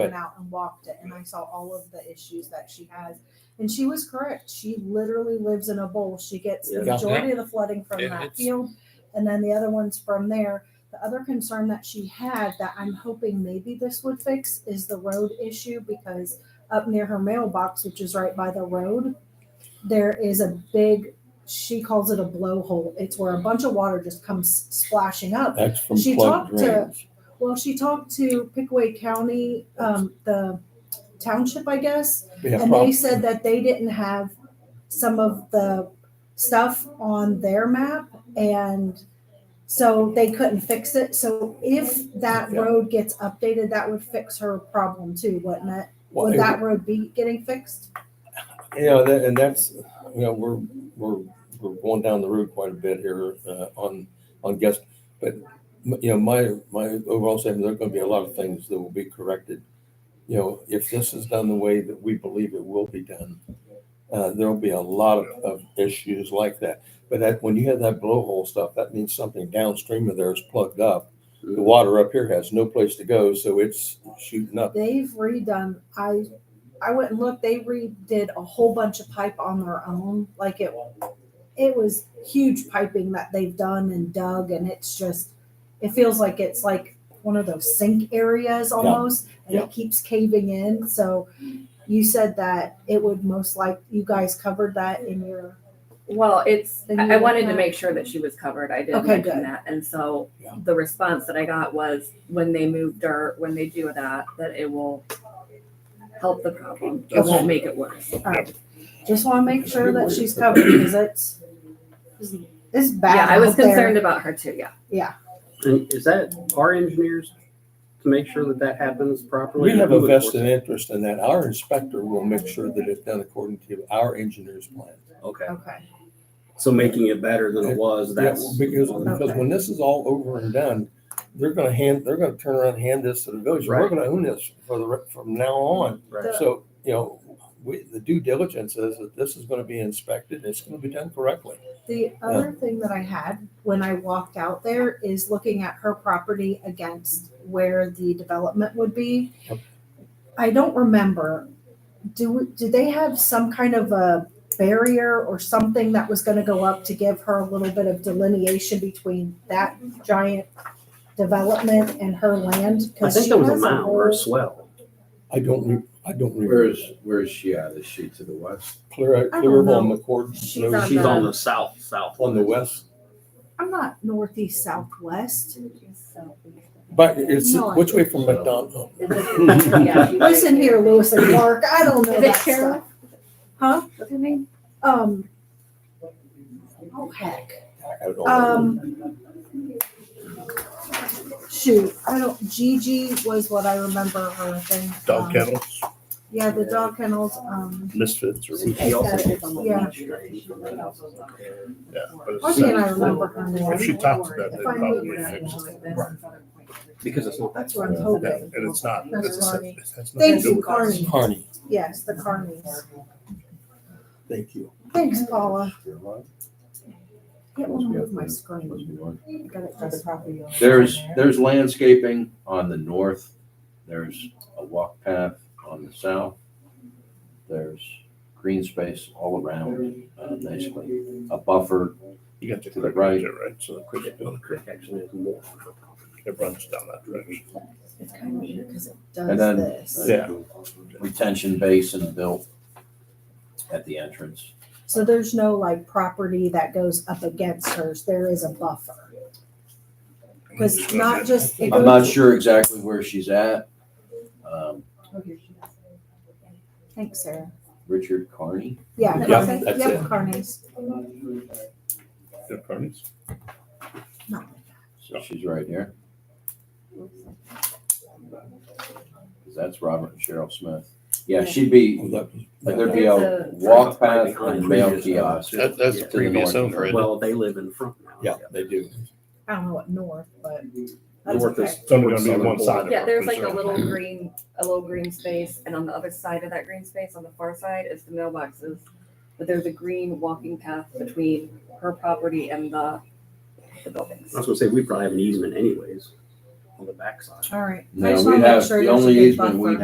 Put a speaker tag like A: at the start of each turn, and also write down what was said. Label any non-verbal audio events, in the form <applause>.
A: went out and walked it and I saw all of the issues that she has. And she was correct. She literally lives in a bowl. She gets the
B: Yeah.
A: majority of the flooding from
C: It-
A: that
C: it's-
A: field and then the other ones from there. The other concern that she had that I'm hoping maybe this would fix is the road issue because up near her mailbox, which is right by the road, there is a big she calls it a blowhole. It's where a bunch of water just comes splashing up.
B: That's from
A: She
B: flood
A: talked to-
B: drains.
A: Well, she talked to Pickaway County, um, the township, I guess,
B: We have
A: and they
B: problems.
A: said that they didn't have some of the stuff on their map, and so they couldn't fix it. So if that
B: Yeah.
A: road gets updated, that would fix her problem too, wouldn't it?
B: Well,
A: Would
B: it-
A: that road be getting fixed?
B: You know, that, and that's, you know, we're, we're, we're going down the road quite a bit here, uh, on, on guest. But, m- you know, my, my overall statement, there are gonna be a lot of things that will be corrected. You know, if this is done the way that we believe it will be done, uh, there'll be a lot of, of issues like that. But that, when you have that blowhole stuff, that means something downstream of there is plugged up. The water up here has no place to go, so it's shooting up.
A: They've redone. I I went and looked. They redid a whole bunch of pipe on their own. Like it, it was huge piping that they've done and dug, and it's just, it feels like it's like one of those sink areas almost, and
B: Yeah.
A: it keeps caving in. So you said that it would most like you guys covered that in your.
D: Well, it's,
A: Then you
D: I I wanted to
A: have-
D: make sure that she was covered. I did
A: Okay,
D: mention
A: good.
D: that. And so
B: Yeah.
D: the response that I got was when they move dirt, when they do that, that it will help the problem. It
A: Okay.
D: won't make it worse.
A: all right. Just want to make sure that she's covered because it's it's bad.
D: Yeah, I was
A: out there.
D: concerned about her too, yeah.
E: And is that our engineers to make sure that that happens properly?
B: We have a
E: Who enforces
B: vested
E: it?
B: interest in that. Our inspector will make sure that it's done according to our engineer's plan.
E: Okay,
A: Okay.
E: so making it better than it was,
B: Yeah,
E: that's.
B: Because, because when this is all over and done, they're gonna hand, they're gonna turn around and hand this to the village. We're
E: Right.
B: gonna own this for the, re- from now on.
E: Right.
B: So, you know, we, the due diligence is that this is gonna be inspected and it's gonna be done correctly.
A: The other thing that I had when I walked out there is looking at her property against where the development would be.
B: Yep.
A: I don't remember, do, do they have some kind of a barrier or something that was gonna go up to give her a little bit of delineation between that giant development and her land?
E: I
A: 'Cause
E: think
A: she
E: there was a
A: has
E: mound or a
A: whole-
E: swell.
B: I don't, re- I don't. re-
F: Where is, where is she at? Is she to the west?
B: Clear,
A: I don't
B: clear of on
A: know.
B: McCord.
A: She's
B: Road.
D: on
E: She's
D: the-
E: on the south, south.
B: On the west,
A: I'm not northeast, southwest.
B: but it's,
A: No, I
B: which way
A: think
B: from
F: so.
B: McDonald?
D: <laughs>
A: <laughs>
D: Yeah.
A: Listen here, Lewis and Clark, I don't know
D: Is it
A: that
D: Carol?
A: stuff. Huh?
D: What's her name?
A: Um, oh heck,
B: I don't know.
A: um. Shoot, I don't, Gigi was what I remember her thing.
G: dog
A: um,
G: kennels,
A: Yeah, the dog kennels, um,
G: misfits or.
E: He also-
A: Yeah.
G: Yeah, but
A: why
G: it's-
A: can't I remember her
G: If she
A: name?
G: talks about it,
A: If
G: it
A: I
G: probably
A: knew that.
G: fixes it.
E: Because it's not.
A: That's what I'm
G: Yeah,
A: hoping.
G: And it's not,
A: That's
G: it's,
A: funny.
G: it has nothing to
A: Thank
G: do
A: you,
G: with.
A: Carney.
B: Carney,
A: Yes, the Carnies.
B: thank you.
A: Thanks, Paula. Can't
F: Must be up
A: move my
F: there.
A: screen. Got it just-
F: There's, there's landscaping on the north. There's a walk path on the south. There's green space all around, uh, basically. A buffer,
G: You got the
F: To the
G: creek
F: right.
G: right there, right? So the creek's down the creek.
E: Actually, it's more.
G: It runs down that direction.
A: It's kind of weird because it does
F: And then-
A: this.
G: Yeah.
F: retention basin built at the entrance.
A: So there's no like property that goes up against hers. There is a buffer.
G: Mm-hmm.
A: Because not just. it
F: I'm not
A: goes-
F: sure exactly where she's at. Um,
A: Thanks, Sarah.
F: Richard Carney,
A: Yeah.
B: Yeah,
A: Carney.
B: that's
A: Yep,
B: it.
A: Carney's.
G: The Carney's.
A: No.
F: so she's right here. That's Robert and Cheryl Smith. Yeah, she'd be,
B: Oh, that was-
F: Like there'd be a walk path and mail kiosk.
C: That, that's the
F: To the
C: previous
F: north.
C: owner. isn't it?
E: Well, they live in front now.
B: Yeah, they do.
A: I don't know what north, but that's
E: North
A: okay.
E: is.
G: It's only gonna be one side of it.
D: Yeah, there's like a little green, a little green space and on the other side of that green space, on the far side is the mailboxes. But there's a green walking path between her property and the, the buildings.
E: I was gonna say, we probably have an easement anyways on the backside.
A: All right. I
F: No,
A: just
F: we
A: wanna make
F: have,
A: sure
F: the
A: there's a
F: only
A: good
F: easement we
A: buffer.